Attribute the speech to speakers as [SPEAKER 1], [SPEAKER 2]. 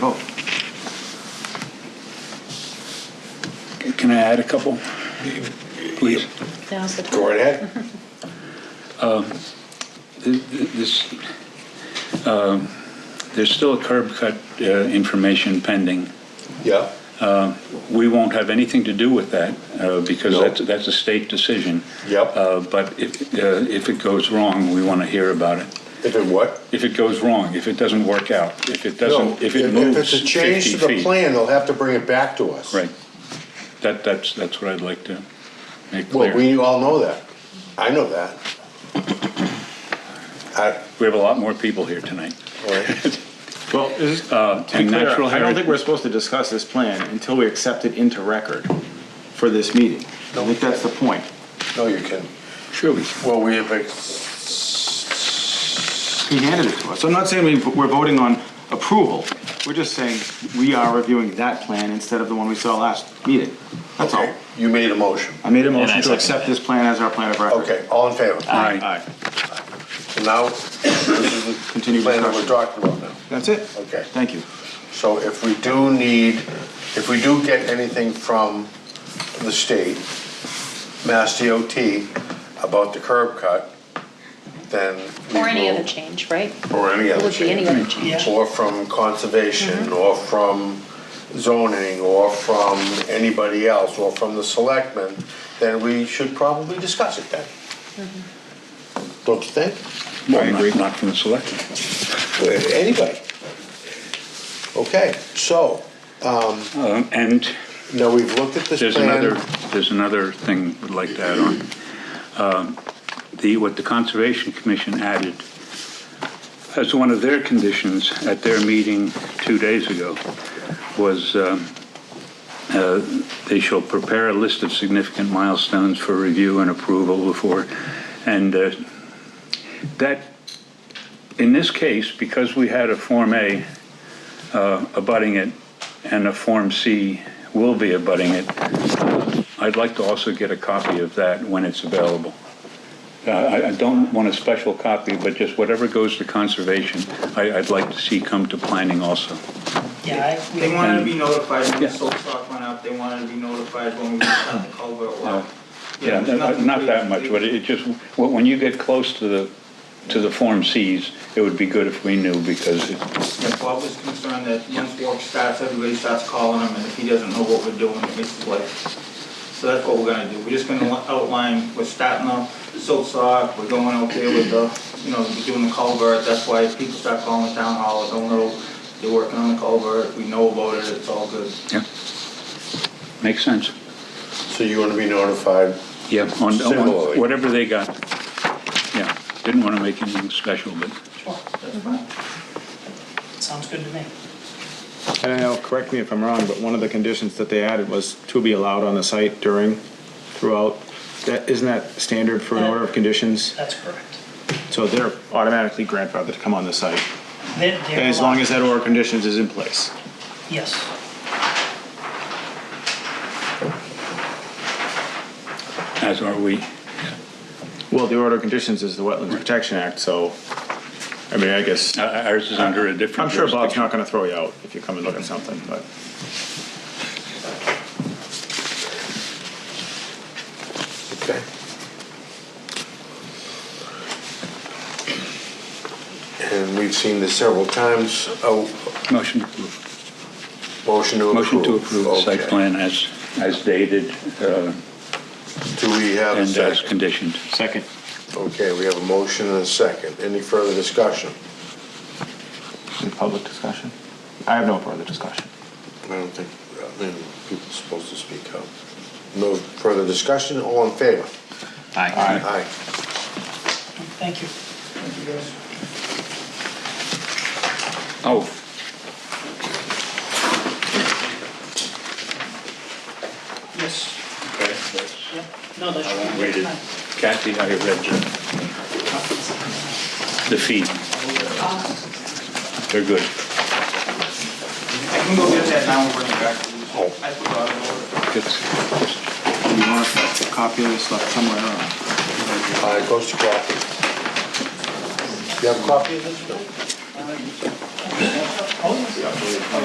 [SPEAKER 1] Oh.
[SPEAKER 2] Can I add a couple? Please.
[SPEAKER 3] Now's the time.
[SPEAKER 1] Go right ahead.
[SPEAKER 2] Th- th- This, um, there's still a curb cut uh, information pending.
[SPEAKER 1] Yeah.
[SPEAKER 2] We won't have anything to do with that uh, because
[SPEAKER 1] No.
[SPEAKER 2] that's, that's a state decision.
[SPEAKER 1] Yep.
[SPEAKER 2] Uh, But if, uh, if it goes wrong, we want to hear about it.
[SPEAKER 1] If it what?
[SPEAKER 2] If it goes wrong, if it doesn't work out, if it
[SPEAKER 1] No.
[SPEAKER 2] doesn't, if it moves
[SPEAKER 1] If it's a
[SPEAKER 2] 50
[SPEAKER 1] change to the
[SPEAKER 2] feet.
[SPEAKER 1] plan, they'll have to bring it back to us.
[SPEAKER 2] Right. That, that's, that's what I'd like to make
[SPEAKER 1] Well,
[SPEAKER 2] clear. We
[SPEAKER 1] we all know that. I know that. I,
[SPEAKER 2] have a lot more people here tonight.
[SPEAKER 1] all right.
[SPEAKER 4] Well, is, uh, to be
[SPEAKER 2] and
[SPEAKER 4] clear,
[SPEAKER 2] natural
[SPEAKER 4] I don't
[SPEAKER 2] heri-
[SPEAKER 4] think we're supposed to discuss this plan until we accept it into record for this meeting. I think that's the point.
[SPEAKER 1] no, you can.
[SPEAKER 2] Sure we
[SPEAKER 1] Well, we have,
[SPEAKER 4] He handed it to us. So I'm not saying we, we're voting on approval. We're just saying we are reviewing that plan instead of the one we saw last meeting. That's all.
[SPEAKER 1] okay, you made a motion.
[SPEAKER 4] I made a
[SPEAKER 5] And I
[SPEAKER 4] motion to
[SPEAKER 5] second
[SPEAKER 4] accept this plan as our plan of record.
[SPEAKER 1] Okay, all in favor?
[SPEAKER 2] Aye.
[SPEAKER 4] Aye.
[SPEAKER 1] So now, this is the
[SPEAKER 4] Continue
[SPEAKER 1] plan that we're
[SPEAKER 4] discussion.
[SPEAKER 1] talking about now.
[SPEAKER 4] That's it.
[SPEAKER 1] Okay.
[SPEAKER 4] Thank you.
[SPEAKER 1] So if we do need, if we do get anything from the state, Mass DOT, about the curb cut, then. we
[SPEAKER 3] Or any
[SPEAKER 1] will-
[SPEAKER 3] other change, right?
[SPEAKER 1] Or any
[SPEAKER 3] It
[SPEAKER 1] other
[SPEAKER 3] would be any
[SPEAKER 1] change.
[SPEAKER 3] other change. Mm-hmm.
[SPEAKER 1] Or from conservation, or from zoning, or from anybody else, or from the selectmen, then we should probably discuss it then.
[SPEAKER 3] Mm-hmm.
[SPEAKER 1] Don't you think?
[SPEAKER 2] I agree. Not from the selection.
[SPEAKER 1] Anybody? Okay, so,
[SPEAKER 2] Um, And
[SPEAKER 1] now we've looked at this plan.
[SPEAKER 2] there's another, there's another thing we'd like to add on. Um, The, what the Conservation Commission added as one of their conditions at their meeting two days ago was um, uh, they shall prepare a list of significant milestones for review and approval before, and uh, that, in this case, because we had a Form A uh, abutting it and a Form C will be abutting it, I'd like to also get a copy of that when it's available. Uh, I I don't want a special copy, but just whatever goes to conservation, I- I'd like to see come to planning also.
[SPEAKER 6] Yeah, I-
[SPEAKER 7] They
[SPEAKER 6] we-
[SPEAKER 7] wanted to be notified when the
[SPEAKER 2] Yeah.
[SPEAKER 7] salt stock went out, they wanted to be notified when we found the culvert
[SPEAKER 2] Yeah.
[SPEAKER 7] lot.
[SPEAKER 2] Yeah,
[SPEAKER 7] there's
[SPEAKER 2] not
[SPEAKER 7] nothing
[SPEAKER 2] not
[SPEAKER 7] we-
[SPEAKER 2] that much, but it just, when when you get close to the, to the Form Cs, it would be good if we knew because it-
[SPEAKER 7] Yeah, Bob was concerned that once work starts, everybody starts calling him, and if he doesn't know what we're doing, it makes his life. So that's what we're gonna do, we're just gonna li- outline, we're starting the silt sock, we're going out there with the, you know, we're doing the culvert, that's why if people start calling the town hall, don't know, they're working on the culvert, we know about it, it's all good.
[SPEAKER 2] yeah. Makes sense.
[SPEAKER 1] So you want to be notified?
[SPEAKER 2] Yeah, on on
[SPEAKER 1] Similarly.
[SPEAKER 2] whatever they got. Yeah, didn't want to make anything special, but
[SPEAKER 6] Sure, that's fine. Sounds good to me.
[SPEAKER 4] I don't know, correct me if I'm wrong, but one of the conditions that they added was to be allowed on the site during, throughout. That, isn't that standard for an order of conditions?
[SPEAKER 6] That's correct.
[SPEAKER 4] So they're automatically grandfathered to come on the site,
[SPEAKER 6] They're- they're
[SPEAKER 4] as long
[SPEAKER 6] allowed-
[SPEAKER 4] as that order of conditions is in place.
[SPEAKER 6] Yes.
[SPEAKER 2] as are we.
[SPEAKER 4] Well, the order of conditions is the Wetlands Protection Act, so, I mean, I guess,
[SPEAKER 2] Uh, Ours is under a different.
[SPEAKER 4] I'm sure Bob's
[SPEAKER 2] jurisdiction.
[SPEAKER 4] not gonna throw you out if you come and look at something, but.
[SPEAKER 1] Okay. And we've seen this several times, a
[SPEAKER 2] Motion to approve.
[SPEAKER 1] motion to approve.
[SPEAKER 2] Motion to approve the site
[SPEAKER 1] Okay.
[SPEAKER 2] plan as, as dated uh,
[SPEAKER 1] Do we have a
[SPEAKER 2] and as
[SPEAKER 1] second?
[SPEAKER 2] conditioned.
[SPEAKER 4] Second.
[SPEAKER 1] Okay, we have a motion and a second. Any further discussion?
[SPEAKER 4] Public discussion? I have no further discussion.
[SPEAKER 1] I don't think, I mean, people are supposed to speak up. No further discussion, all in favor? Aye.
[SPEAKER 6] Thank you.
[SPEAKER 2] Oh,
[SPEAKER 6] Yes.
[SPEAKER 2] okay, that's-
[SPEAKER 6] Yep. No, that
[SPEAKER 2] I
[SPEAKER 6] should
[SPEAKER 2] won't
[SPEAKER 6] be
[SPEAKER 2] read it.
[SPEAKER 6] fine.
[SPEAKER 2] Kathy, I read the, the fee. They're good.
[SPEAKER 7] I can go get that now and bring it back to you.
[SPEAKER 4] Oh.
[SPEAKER 7] I forgot about it.
[SPEAKER 2] It's-
[SPEAKER 4] You want a copy of this left somewhere around?
[SPEAKER 1] Aye, it goes to Kathy. You have a copy of this? No.